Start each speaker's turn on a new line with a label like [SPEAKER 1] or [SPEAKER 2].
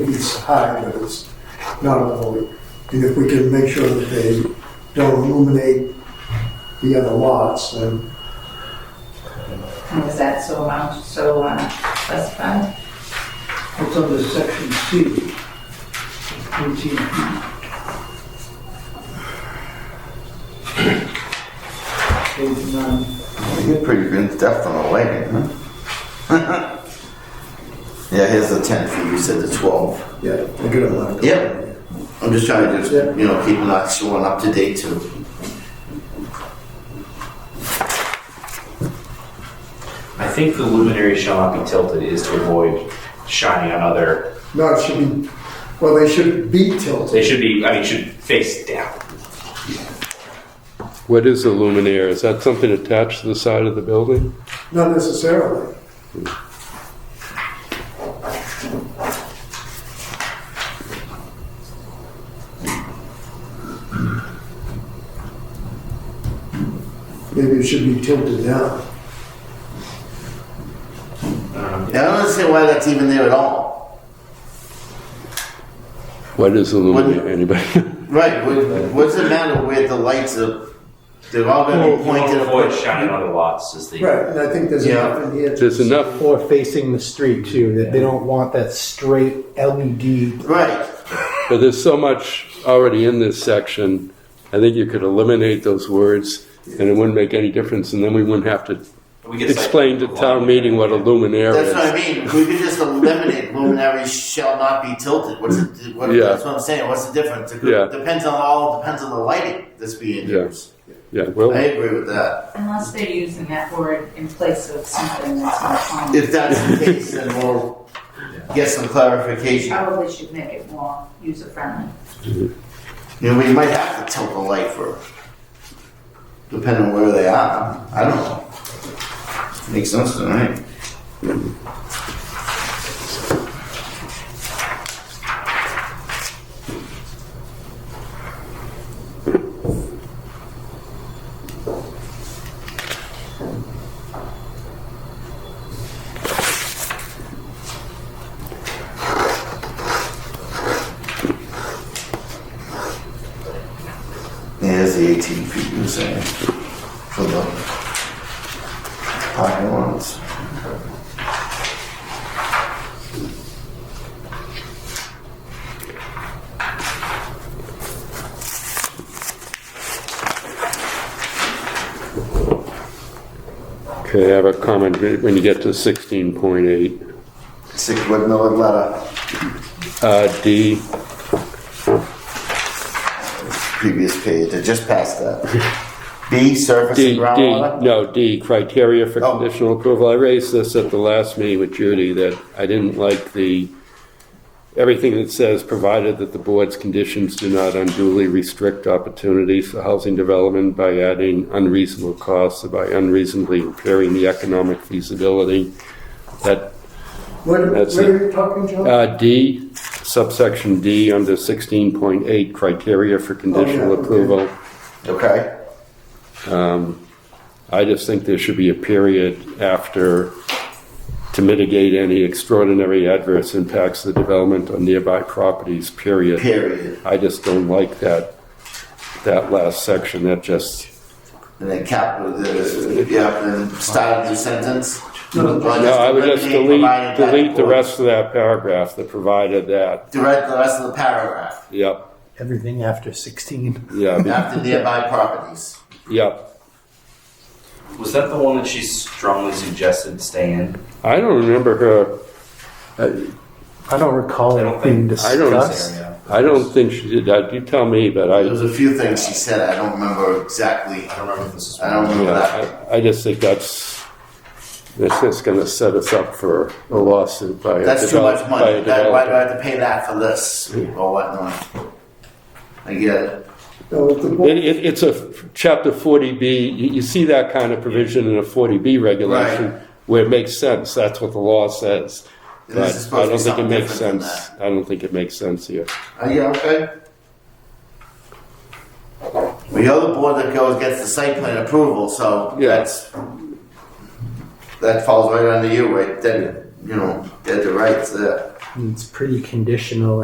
[SPEAKER 1] it's high, but it's not all the way. And if we can make sure that they don't illuminate the other lots, then
[SPEAKER 2] And is that so amount, so uh, specified?
[SPEAKER 3] It's under section C, 18. Page nine.
[SPEAKER 4] You're pretty in depth on the lighting, huh? yeah, here's the 10 feet. You said the 12.
[SPEAKER 1] yeah, they're gonna have to.
[SPEAKER 4] Yep. I'm just trying to just,
[SPEAKER 1] Yeah.
[SPEAKER 4] you know, keep not showing up to date too.
[SPEAKER 5] I think the luminary shall not be tilted is to avoid shining on other.
[SPEAKER 1] No, it should be, well, they should be
[SPEAKER 5] They
[SPEAKER 1] tilted.
[SPEAKER 5] should be. I mean, should face down.
[SPEAKER 6] What is a luminaire? Is that something attached to the side of the building?
[SPEAKER 1] Not necessarily. Maybe it should be tilted down.
[SPEAKER 4] I don't understand why that's even there at all.
[SPEAKER 6] What is a luminaire,
[SPEAKER 4] What-
[SPEAKER 6] anybody?
[SPEAKER 4] Right. What, what's the matter where the lights are? They're all going to be
[SPEAKER 5] Point
[SPEAKER 4] pointed
[SPEAKER 5] to avoid
[SPEAKER 4] up.
[SPEAKER 5] shining on other lots is the.
[SPEAKER 1] Right, and I think there's
[SPEAKER 4] Yeah.
[SPEAKER 1] enough in here. to-
[SPEAKER 6] There's enough,
[SPEAKER 7] Or facing the street too, that they don't want that straight E LED.
[SPEAKER 4] Right.
[SPEAKER 6] but there's so much already in this section. I think you could eliminate those words and it wouldn't make any difference and then we wouldn't have to
[SPEAKER 5] We get cited
[SPEAKER 6] explain to
[SPEAKER 5] for
[SPEAKER 6] town meeting what a luminaire
[SPEAKER 4] That's what I
[SPEAKER 6] is.
[SPEAKER 4] mean. We could just eliminate luminary shall not be tilted. What's the, what,
[SPEAKER 6] Yeah.
[SPEAKER 4] That's what I'm saying. What's the difference? It
[SPEAKER 6] Yeah.
[SPEAKER 4] depends on all depends on the lighting that's being
[SPEAKER 6] Yeah.
[SPEAKER 4] used.
[SPEAKER 6] Yeah,
[SPEAKER 4] I
[SPEAKER 6] well,
[SPEAKER 4] agree with that.
[SPEAKER 2] Unless they're using that word in place of something that's not common.
[SPEAKER 4] If that's the case, then we'll get some clarification.
[SPEAKER 2] Probably should make it more user-friendly.
[SPEAKER 4] You know, we might have to tilt the light for depending on where they are. I don't know. Makes sense to me. There's the 18 feet you were saying for the parking lots.
[SPEAKER 6] okay, I have a comment when you get to sixteen point eight.
[SPEAKER 4] Six with no letter.
[SPEAKER 6] Uh, D,
[SPEAKER 4] Previous page. I just passed that. B surface
[SPEAKER 6] D,
[SPEAKER 4] and
[SPEAKER 6] D,
[SPEAKER 4] groundwater.
[SPEAKER 6] no, D, criteria for
[SPEAKER 4] Oh.
[SPEAKER 6] conditional approval. I raised this at the last meeting with Judy, that I didn't like the, everything that says, provided that the board's conditions do not unduly restrict opportunities for housing development by adding unreasonable costs or by unreasonably impairing the economic feasibility. That,
[SPEAKER 1] What,
[SPEAKER 6] That's
[SPEAKER 1] what are you talking, John?
[SPEAKER 6] uh, D, subsection D, under sixteen point eight, criteria for conditional
[SPEAKER 1] okay.
[SPEAKER 6] approval.
[SPEAKER 4] Okay.
[SPEAKER 6] I just think there should be a period after to mitigate any extraordinary adverse impacts of the development on nearby properties, period.
[SPEAKER 4] Period.
[SPEAKER 6] I just don't like that, that last section, that just,
[SPEAKER 4] And then cap with the yeah, and then start a new sentence. No,
[SPEAKER 6] no, I would just delete, delete the rest of that paragraph, the provided that,
[SPEAKER 4] The rest, the rest of the paragraph
[SPEAKER 6] yep,
[SPEAKER 7] Everything after 16.
[SPEAKER 6] yeah,
[SPEAKER 4] after nearby properties.
[SPEAKER 6] yep.
[SPEAKER 5] Was that the one that she strongly suggested stay in?
[SPEAKER 6] I don't remember her,
[SPEAKER 7] I don't recall
[SPEAKER 5] I don't
[SPEAKER 7] it being
[SPEAKER 6] I don't-
[SPEAKER 7] discussed.
[SPEAKER 6] I don't think she did that, you tell me, but
[SPEAKER 4] There
[SPEAKER 6] I,
[SPEAKER 4] was a few things she said. I don't remember exactly.
[SPEAKER 5] I don't remember if this is.
[SPEAKER 4] I don't remember that.
[SPEAKER 6] yeah, I, I just think that's, that's just gonna set us up for a lawsuit by a
[SPEAKER 4] That's too
[SPEAKER 6] develop-
[SPEAKER 4] much
[SPEAKER 6] by a
[SPEAKER 4] money. That, why do
[SPEAKER 6] developer.
[SPEAKER 4] I have to pay that for this or whatnot? I get it.
[SPEAKER 1] No, the board-
[SPEAKER 6] It, it, it's a f- chapter forty B, you, you see that kind of provision in a forty B regulation
[SPEAKER 4] Right.
[SPEAKER 6] where it makes sense, that's what the law says.
[SPEAKER 4] And this
[SPEAKER 6] But
[SPEAKER 4] is supposed
[SPEAKER 6] I
[SPEAKER 4] to be
[SPEAKER 6] don't think it
[SPEAKER 4] something different
[SPEAKER 6] makes sense,
[SPEAKER 4] than
[SPEAKER 6] I don't think it makes sense here.
[SPEAKER 4] Are you okay? Well, you're the board that goes gets the site plan approval, so
[SPEAKER 6] Yeah.
[SPEAKER 4] that's that falls right under you, right? Then you know, dead to rights there.
[SPEAKER 7] It's pretty conditional